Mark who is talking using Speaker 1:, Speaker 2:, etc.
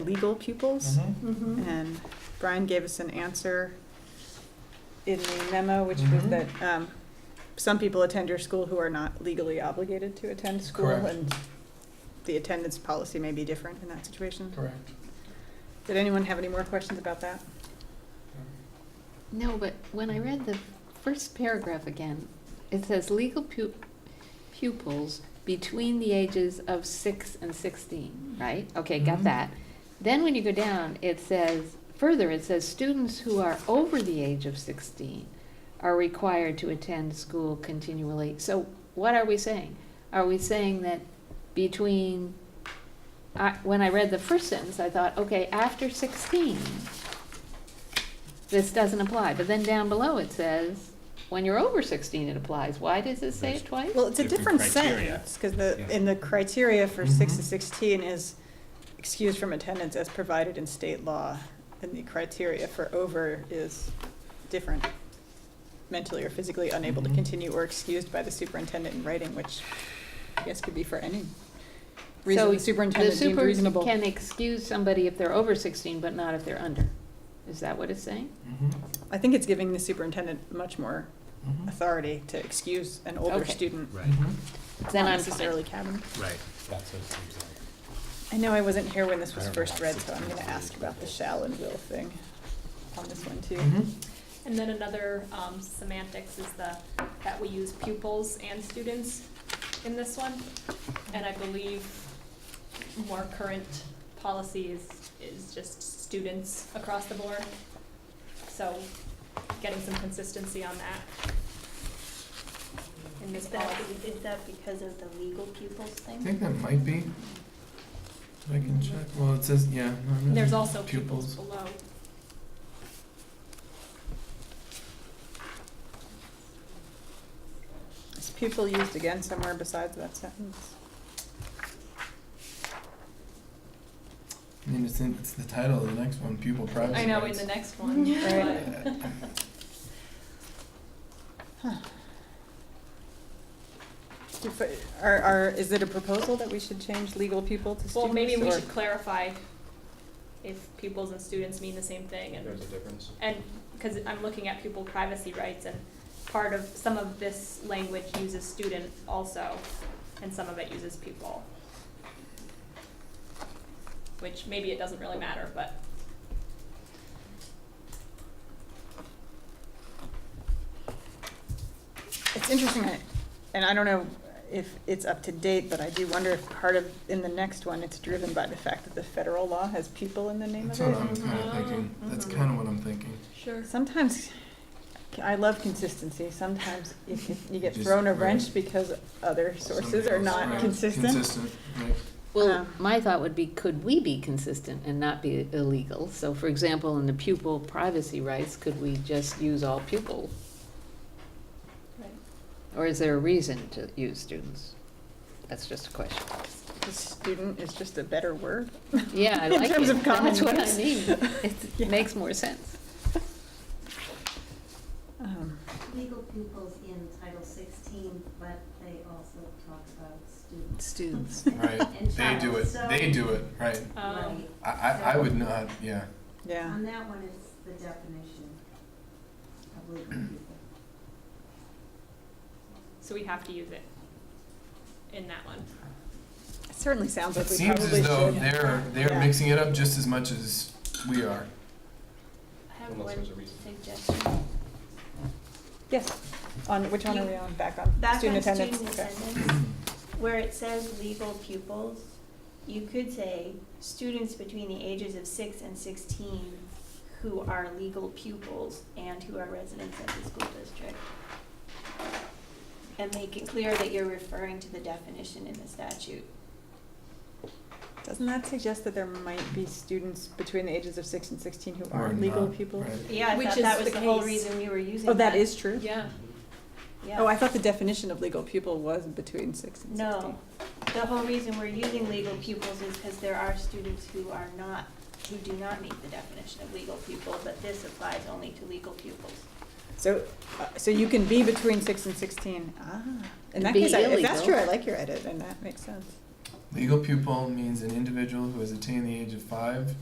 Speaker 1: legal pupils.
Speaker 2: Mhm.
Speaker 3: Mm-hmm.
Speaker 1: And Brian gave us an answer in the memo, which was
Speaker 3: Mhm.
Speaker 1: that um, some people attend your school who are not legally obligated to attend school.
Speaker 3: Correct.
Speaker 1: And the attendance policy may be different in that situation.
Speaker 3: Correct.
Speaker 1: Did anyone have any more questions about that?
Speaker 4: No, but when I read the first paragraph again, it says legal pu- pupils between the ages of six and sixteen, right? Okay,
Speaker 3: Mhm.
Speaker 4: got that. Then when you go down, it says, further, it says students who are over the age of sixteen are required to attend school continually. So what are we saying? Are we saying that between, I, when I read the first sentence, I thought, okay, after sixteen, this doesn't apply, but then down below it says, when you're over sixteen, it applies, why does it say it twice?
Speaker 1: Well, it's a
Speaker 5: Different
Speaker 1: different
Speaker 5: criteria.
Speaker 1: sentence, because the,
Speaker 5: Yeah. Mm-hmm.
Speaker 1: in the criteria for six
Speaker 3: Mhm.
Speaker 1: to sixteen is excused from attendance as provided in state law, and the criteria for over is different. Mentally or physically unable to
Speaker 5: Mm-hmm.
Speaker 3: Mhm.
Speaker 1: continue or excused by the superintendent in writing, which I guess could be for any
Speaker 4: So
Speaker 1: reason the
Speaker 4: The
Speaker 1: superintendent deemed
Speaker 4: super
Speaker 1: reasonable.
Speaker 4: can excuse somebody if they're over sixteen, but not if they're under, is that what it's saying?
Speaker 3: Mm-hmm.
Speaker 1: I think it's giving the superintendent much more
Speaker 3: Mhm.
Speaker 1: authority to excuse an older
Speaker 4: Okay.
Speaker 1: student,
Speaker 5: Mm-hmm. Right,
Speaker 3: Mhm.
Speaker 1: not
Speaker 4: Then I'm
Speaker 1: necessarily
Speaker 4: fine.
Speaker 1: cabinet.
Speaker 5: right. That's what it seems like.
Speaker 1: I know I wasn't here when this was
Speaker 5: I don't
Speaker 1: first
Speaker 5: know.
Speaker 1: read, so I'm gonna ask about the shall and will thing on this one too.
Speaker 3: Mhm.
Speaker 2: And then another um, semantics is the, that we use pupils and students in this one. And I believe more current policy is, is just students across the board. So getting some consistency on that. In this
Speaker 6: Is that,
Speaker 2: policy.
Speaker 6: is that because of the legal pupils
Speaker 3: I
Speaker 6: thing?
Speaker 3: think that might be. I can check. Well, it says, yeah. no, no,
Speaker 2: And There's
Speaker 3: no.
Speaker 2: also Mm-hmm. pupils below.
Speaker 1: Is pupil used again somewhere besides that sentence?
Speaker 3: I mean, it's in, it's the title of the next one, pupil privacy
Speaker 2: I know in
Speaker 3: rights.
Speaker 2: the next one, but
Speaker 1: Do fi- Are, are, is it a proposal that we should change legal pupil to students?
Speaker 2: Well, maybe we
Speaker 1: or-
Speaker 2: should clarify if pupils and students mean the same thing and. There's a difference. And, cause I'm looking at pupil privacy rights and part of, some of this language uses student also, and some of it uses pupil. Which maybe it doesn't really matter, but
Speaker 1: It's interesting, I- and I don't know if it's up to date, but I do wonder if part of, in the next one, it's driven by the fact that the federal law has pupil in the name
Speaker 3: That's
Speaker 1: of
Speaker 3: what
Speaker 1: it. Mm-hmm.
Speaker 3: I'm kind of
Speaker 2: Mhm.
Speaker 3: thinking. That's
Speaker 2: Mhm.
Speaker 3: kind of what I'm thinking.
Speaker 2: Sure.
Speaker 1: Sometimes, I love consistency, sometimes you get- you get
Speaker 3: Just-
Speaker 1: thrown a
Speaker 3: right.
Speaker 1: wrench because other sources
Speaker 3: Something
Speaker 1: are
Speaker 3: else,
Speaker 1: not
Speaker 3: right,
Speaker 1: consistent.
Speaker 3: Consistent, right.
Speaker 4: Well,
Speaker 1: Um,
Speaker 4: my thought would be, could we be consistent and not be illegal? So for example, in the pupil privacy rights, could we just use all pupils?
Speaker 2: Right.
Speaker 4: Or is there a reason to use students? That's just a question.
Speaker 1: The Student is just a better word.
Speaker 4: Yeah, I
Speaker 1: In
Speaker 4: like it.
Speaker 1: terms of common
Speaker 4: That's what I
Speaker 1: use.
Speaker 4: mean.
Speaker 1: Yeah.
Speaker 4: It makes more sense.
Speaker 1: Um,
Speaker 6: Legal pupils in Title sixteen, but they also talk about students
Speaker 4: Students.
Speaker 3: Right.
Speaker 6: and
Speaker 3: They
Speaker 6: child,
Speaker 3: do it.
Speaker 6: so-
Speaker 3: They do it. Right.
Speaker 2: Um,
Speaker 6: Right,
Speaker 3: I, I, I would not, yeah.
Speaker 1: Yeah.
Speaker 6: on that one, it's the definition of legal pupil.
Speaker 2: so we have to use it in that one.
Speaker 1: It certainly sounds
Speaker 3: It
Speaker 1: like we
Speaker 3: seems
Speaker 1: probably should.
Speaker 3: as though they're, they're
Speaker 1: Yeah.
Speaker 3: mixing it up just as much as we are.
Speaker 6: I have
Speaker 7: Unless
Speaker 6: one
Speaker 7: there's a reason.
Speaker 6: suggestion.
Speaker 1: Yes, on, which one are we on, back on?
Speaker 6: Back
Speaker 1: Student
Speaker 6: on
Speaker 1: attendance.
Speaker 6: student
Speaker 1: Okay.
Speaker 6: attendance, where it says legal pupils, you could say students between the ages of six and sixteen who are legal pupils and who are residents of the school district. And make it clear that you're referring to the definition in the statute.
Speaker 1: Doesn't that suggest that there might be students between the ages of six and sixteen who
Speaker 3: Or
Speaker 1: aren't legal
Speaker 3: not,
Speaker 1: people?
Speaker 3: right.
Speaker 6: Yeah, I
Speaker 2: Which
Speaker 6: thought
Speaker 2: is
Speaker 6: that was
Speaker 2: the
Speaker 6: the whole
Speaker 2: case.
Speaker 6: reason you were using that.
Speaker 1: Oh, that is true?
Speaker 2: Yeah.
Speaker 6: Yeah.
Speaker 1: Oh, I thought the definition of legal pupil was between six and sixteen.
Speaker 6: No, the whole reason we're using legal pupils is because there are students who are not, who do not meet the definition of legal pupil, but this applies only to legal pupils.
Speaker 1: So, uh, so you can be between six and sixteen, ah, in
Speaker 4: And
Speaker 1: that
Speaker 4: be
Speaker 1: case, I- if that's
Speaker 4: illegal.
Speaker 1: true, I like your edit, and that makes sense.
Speaker 3: Legal pupil means an individual who has attained the age of five